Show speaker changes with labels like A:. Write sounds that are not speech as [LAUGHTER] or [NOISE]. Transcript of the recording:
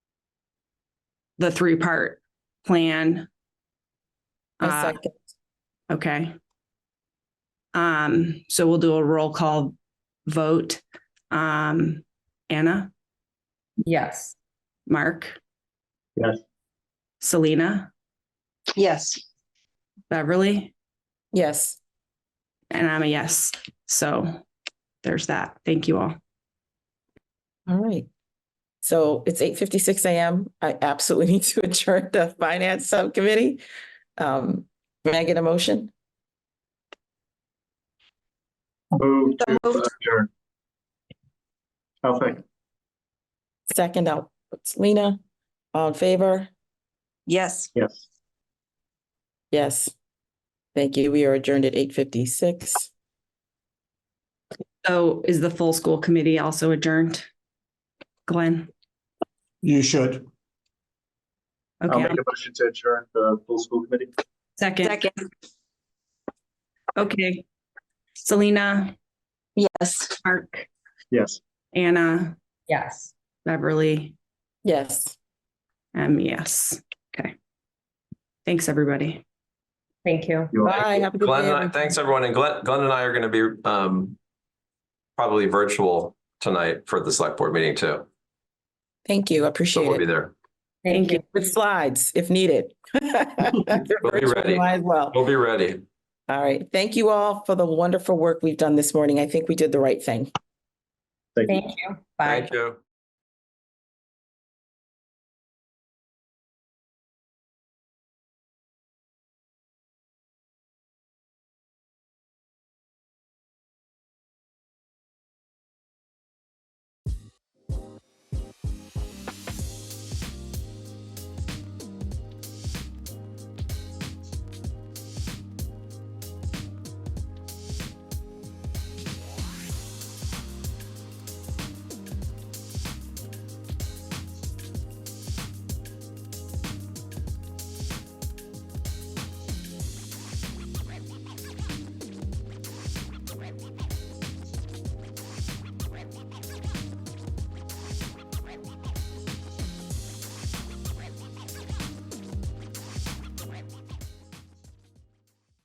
A: the three-part plan.
B: I
A: Uh,
B: second.
A: okay. Um, so we'll do a roll call vote. Um, Anna,
B: Yes.
A: Mark?
C: Yes.
A: Selena,
D: Yes.
A: Beverly,
B: Yes.
A: and I'm a yes. So there's that. Thank you all.
B: All right. So it's eight fifty-six AM. I absolutely [LAUGHS] need to adjourn the finance subcommittee. Um, may I get a motion?
C: Move to
D: moved.
C: adjourn. I'll second.
B: Second out, it's Lena. All in favor?
D: Yes.
C: yes.
B: Yes. Thank you. We are adjourned at eight fifty-six.
A: So is the full school committee also adjourned? Glenn?
E: You should.
C: I'll
A: Okay,
C: make a motion to adjourn the full school committee.
A: second.
D: Second.
A: Okay. Selena,
D: Yes.
A: Mark,
C: Yes.
A: Anna,
B: Yes.
A: Beverly,
B: Yes.
A: um, yes. Okay. Thanks, everybody.
F: Thank you.
C: You are-
B: Bye. Have a good
G: Glenn,
B: day,
G: and I- thanks everyone. And Glenn, Glenn and I are going to be um, probably virtual tonight for the select board meeting too.
B: Thank you. I
G: So we'll
B: Appreciate
G: be
B: it.
G: there.
A: Thank you.
B: With slides if needed. [LAUGHS]
G: We'll be ready.
B: Might as well.
G: We'll be ready.
B: All right. Thank you all for the wonderful work we've done this morning. I think we did the right thing.
C: Thank you.
F: Thank you. Bye.
G: Thank you.